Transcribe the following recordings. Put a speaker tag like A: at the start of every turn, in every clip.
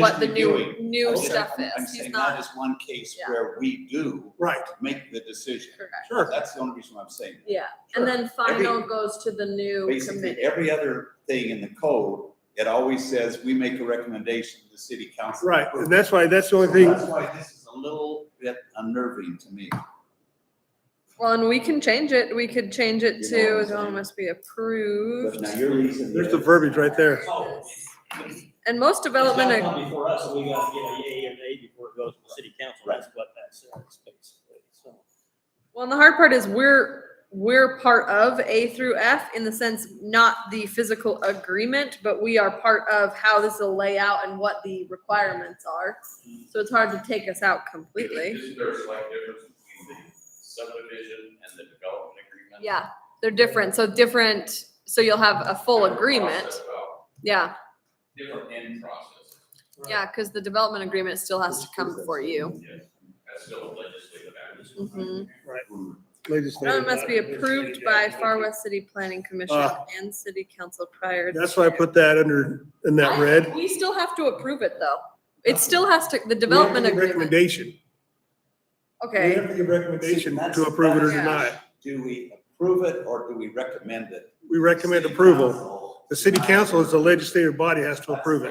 A: what the new,
B: reviewing.
A: new
B: Okay,
A: stuff
B: I'm- I'm
A: is. He's
B: saying that
A: not,
B: is one case
A: Yeah.
B: where we do
C: Right,
B: make the decision.
A: correct.
C: sure.
B: That's the only reason why I'm saying. that.
A: Yeah, and then final
B: Every-
A: goes to the new
B: Basically,
A: committee.
B: every other thing in the code, it always says we make a recommendation to the city council.
C: Right, and that's why, that's the
B: So
C: only thing,
B: That's why this is a little bit unnerving to me.
A: Well, and we can change it. We could change it
B: You know what
A: to
B: I'm
A: zone
B: saying.
A: must be
B: But
A: approved.
B: now you're leasing.
C: there's the verbiage right there.
D: Oh.
A: And most development,
D: It's
A: ag-
D: gotta come before us, so we gotta get a yay or nay before it goes to the city council, that's what that says, basically, so.
A: well, and the hard part is we're, we're part of A through F in the sense, not the physical agreement, but we are part of how this will lay out and what the requirements are. So it's hard to take us out completely.
E: Isn't there a slight difference between the subdivision and the development agreement?
A: Yeah, they're different. So different, so you'll have a full
E: Different
A: agreement.
E: process about
A: Yeah,
E: Different end process,
A: yeah, because the development agreement still has to come before you.
E: that's still a legislative act.
A: Mhm. Zone
C: Legislative-
A: must be approved by Far West City Planning Commission
C: Ah.
A: and City Council prior. to-
C: That's why I put that under, in that red.
A: We still have to approve it, though. It still has to, the development
C: We have to give
A: agreement,
C: Recommendation. We
A: okay.
C: have to give recommendation
B: See, that's-
C: to approve it or
A: that's-
C: deny it.
B: Do we approve it or do we recommend it?
C: We recommend
B: City
C: approval.
B: council-
C: The city council is the legislative body, has to approve it.
E: Are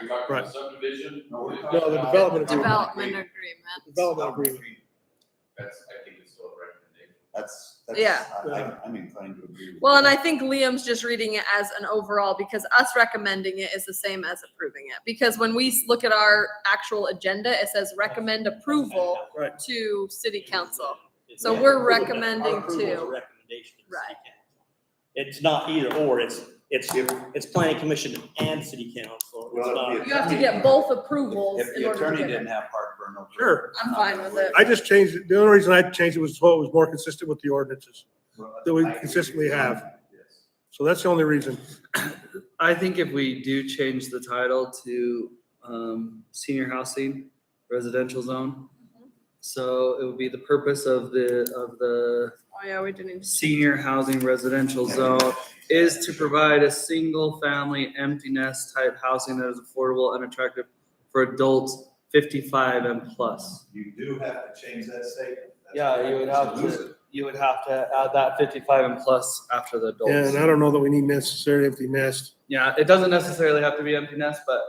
E: you talking
C: Right.
E: about subdivision?
B: No, we're
C: No, the development agreement.
A: Development agreement.
C: Development agreement.
E: That's, I think it's still a recommendation.
B: That's, that's.
A: Yeah.
B: I- I- I'm inclined to agree with.
A: Well, and
B: that.
A: I think Liam's just reading it as an overall because us recommending it is the same as approving it. Because when we s- look at our actual agenda, it says recommend approval
C: Right.
A: to city council.
D: It's-
A: So
B: Yeah.
A: we're
D: Our approval
A: recommending
D: is a
A: to-
D: recommendation to the city
A: Right.
D: council. It's not either or, it's, it's, it's planning commission and city council. It's
B: Well,
D: not-
B: if-
A: You have to get both approvals
B: If
A: in
B: the
A: order to
B: attorney
A: get
B: didn't
A: it.
B: have heartburn over. it, uh,
C: Sure.
A: I'm fine with it.
C: I just changed, it. the only reason I changed it was so it was more consistent with the ordinances. that we consistently have.
B: Yes.
C: So that's the only reason.
F: I think if we do change the title to um, senior housing residential zone. So it would be the purpose of the, of the
A: Oh, yeah, we didn't.
F: senior housing residential zone is to provide a single family empty nest type housing that is affordable and attractive for adults fifty-five and plus.
B: You do have to change that statement. That's
F: Yeah, you would have
B: lose it.
F: to, you would have to add that fifty-five and plus after the adults.
C: And I don't know that we need necessarily empty nest.
F: Yeah, it doesn't necessarily have to be empty nest, but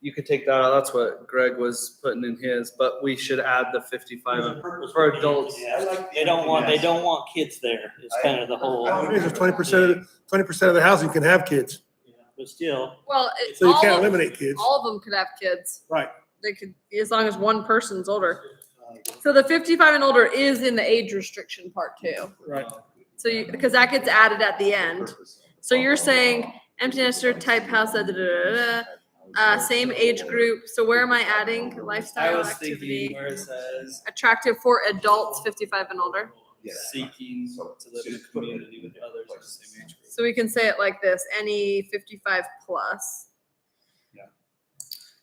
F: you could take that out. That's what Greg was putting in his, but we should add the fifty-five.
D: There's a
F: and-
D: purpose
F: for
D: being-
F: adults.
D: yeah,
B: I like the
D: They don't want, they
B: empty nest.
D: don't want kids there, it's
B: I-
D: kind of the whole.
B: I don't-
C: Twenty percent of, twenty percent of the housing can have kids,
D: Yeah, But still,
A: Well, it,
C: so you
A: all
C: can't
A: of-
C: eliminate kids.
A: All of them could have kids.
C: Right.
A: They could, as long as one person's older. So the fifty-five and older is in the age restriction part too.
C: Right.
A: So you, because that gets added at the end. So you're saying empty nester type house, da, da, da, da, da, uh, same age group. So where am I adding
F: I
A: lifestyle
F: was thinking
A: activity?
F: where it says
A: Attractive for adults fifty-five and older.
B: Yes.
F: seeking to live in a community with others of the same age.
A: So we can say it like this, any fifty-five plus.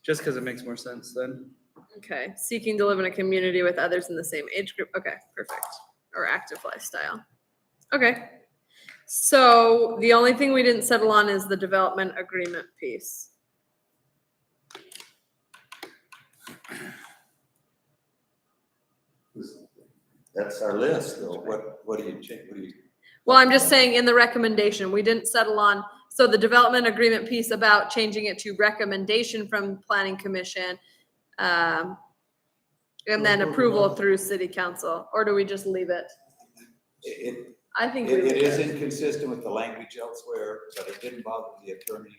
F: Just because it makes more sense then.
A: Okay, seeking to live in a community with others in the same age group. Okay, perfect. Or active lifestyle. Okay. So the only thing we didn't settle on is the development agreement piece.
B: That's our list, though. What, what do you change, what do you?
A: Well, I'm just saying in the recommendation, we didn't settle on, so the development agreement piece about changing it to recommendation from planning commission. Um, and then approval through city council, or do we just leave it?
B: It,
A: I think.
B: it,
A: we
B: it
A: leave
B: is inconsistent with the language elsewhere, but it didn't bother the attorney.
C: Yeah.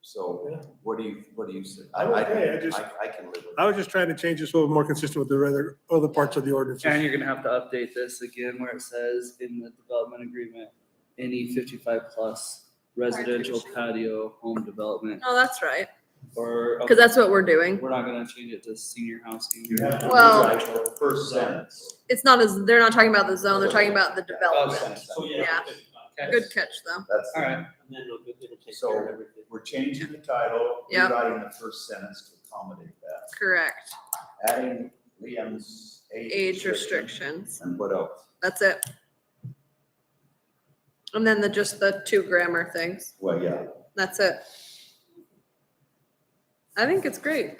B: So what do you, what do you say?
C: I'm
B: I- I-
C: okay, I just-
B: I, I can live with
C: I
B: it.
C: was just trying to change this a little more consistent with the other, other parts of the
F: And
C: ordinances.
F: you're gonna have to update this again where it says in the development agreement, any fifty-five plus residential patio home development
A: No, that's right,
F: or.
A: because that's what we're doing.
F: We're not gonna change it to senior housing.
B: You have to
A: Well-
B: rewrite the First sentence.
A: It's not as, they're not talking about the zone, they're talking about the development.
D: so
A: Yeah.
D: yeah.
B: Oh,
F: Okay.
A: Good catch, though.
B: That's.
F: Oh, All right.
D: And then it'll, it'll take
B: So-
D: care of everything.
B: We're changing the title,
A: Yeah.
B: rewriting the first sentence to accommodate that,
A: Correct.
B: adding Liam's age.
A: Age restrictions.
B: And what else?
A: That's it. And then the, just the two grammar things.
B: Well, yeah,
A: That's it. I think it's great.